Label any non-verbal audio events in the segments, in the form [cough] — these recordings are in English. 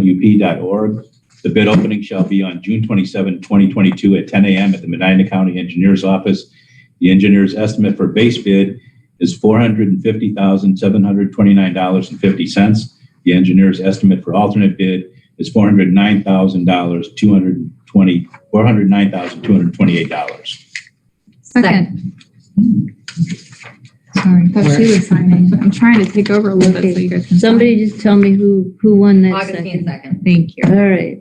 hinkleytwp.org. The bid opening shall be on June 27, 2022 at 10 a.m. at the Medina County Engineers Office. The engineer's estimate for base bid is $450,729.50. The engineer's estimate for alternate bid is $409,220, $409,228. Second. Sorry, that's you signing. I'm trying to take over a little bit so you guys can. sign. Somebody just tell me who, who won that Augustine second. second. Thank you. All right.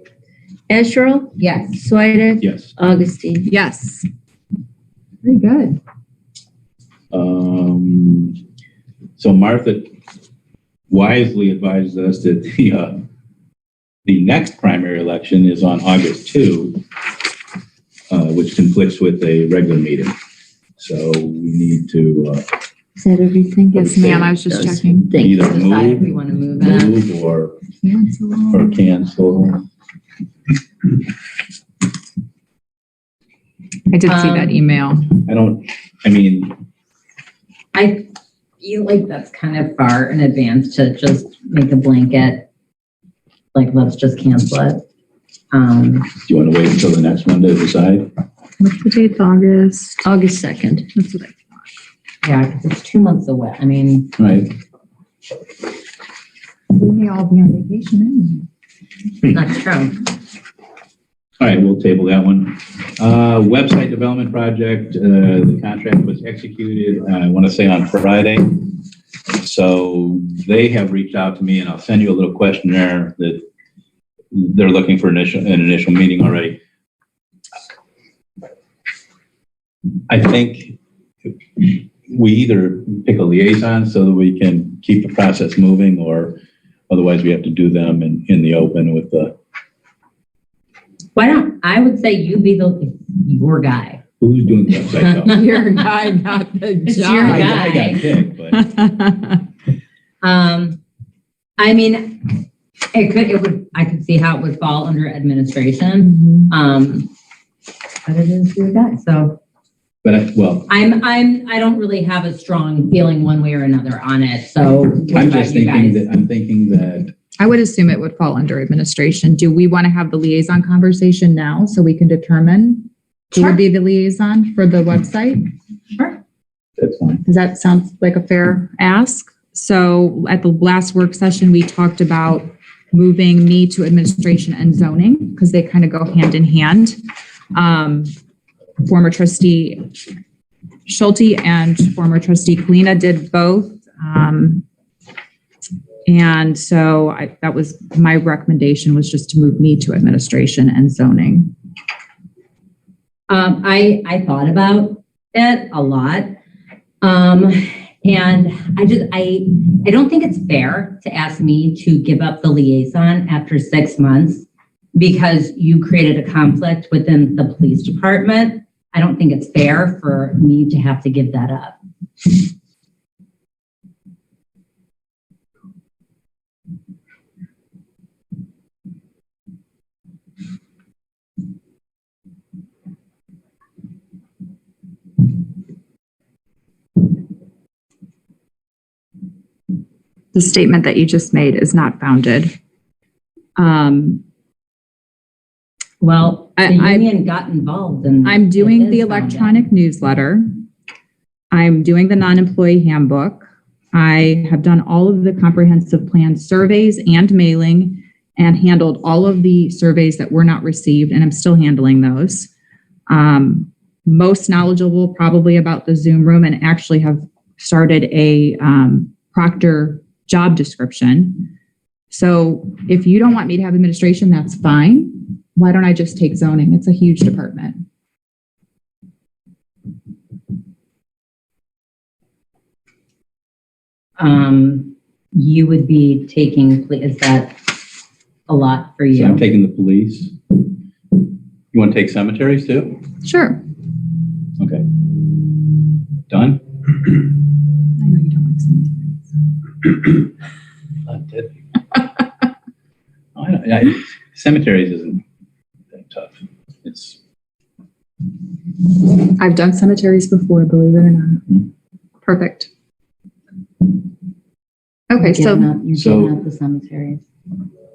Asherle, Yes. Swedek, Yes. Augustine. Yes. Very good. Um, so Martha wisely advised us that [laughs] the, uh, the next primary election is on August 2, uh, which conflicts with a regular meeting. So we need to, uh, Is that everything? Yes, ma'am, I was just Those checking. things. Either Decide if move. we want to move it. move or, or Cancel. cancel. I did see that Um, email. I don't, I mean, I feel like that's kind of far in advance to just make a blanket, like, let's just cancel it. Um, do you want to wait until the next one to decide? What's the date, [laughs] August? August 2nd. That's what I. yeah, 'cause it's two months away. I mean, All Right, We may all be on vacation. that's true. all right, we'll table that one. Uh, website development project, uh, the contract was executed, uh, I want to say on Friday. So they have reached out to me and I'll send you a little questionnaire that they're looking for initial, an initial meeting already. I think we either pick a liaison so that we can keep the process moving or otherwise we have to do them in, in the open with the, Why don't, I would say you be the, your guy. who's doing the website though? [laughs] Your guy, not the It's your job. guy. I, I got kicked, [laughs] but Um, I mean, it could, it would, I could see how it would fall under administration. Um, but it is your guy, so. but I, well, I'm, I'm, I don't really have a strong feeling one way or another on it, so what I'm about just you thinking guys? that I'm thinking that [laughs] I would assume it would fall under administration. Do we want to have the liaison conversation now so we can determine who Sure. would be the liaison for the website? that's fine. Does that sound like a fair ask? So at the last work session, we talked about moving me to administration and zoning because they kind of go hand in hand. Um, Former trustee Schulte and former trustee Kalina did both. Um, And so I, that was, my recommendation was just to move me to administration and zoning. Um, I, I thought about it a lot. Um, and I just, I, I don't think it's fair to ask me to give up the liaison after six months because you created a conflict within the police department. I don't think it's fair for me to have to give that up. the statement that you just made is not founded. Um, Well, the I- I- union got involved and. I'm doing it the is bound up. electronic newsletter. I'm doing the non-employee handbook. I have done all of the comprehensive plan surveys and mailing and handled all of the surveys that were not received, and I'm still handling those. Um, most knowledgeable probably about the Zoom room and actually have started a, um, Proctor job description. So if you don't want me to have administration, that's fine. Why don't I just take zoning? It's a huge department. um, you would be taking, pl- is that a lot for So I'm you? taking the police. You want to take cemeteries too? Sure. Okay. Done? I know you don't like cemeteries. Not dead. [laughs] I don't- I- Cemeteries isn't that tough. It's, I've done cemeteries before, believe it or not. Perfect. Okay, so You're So- the cemeteries.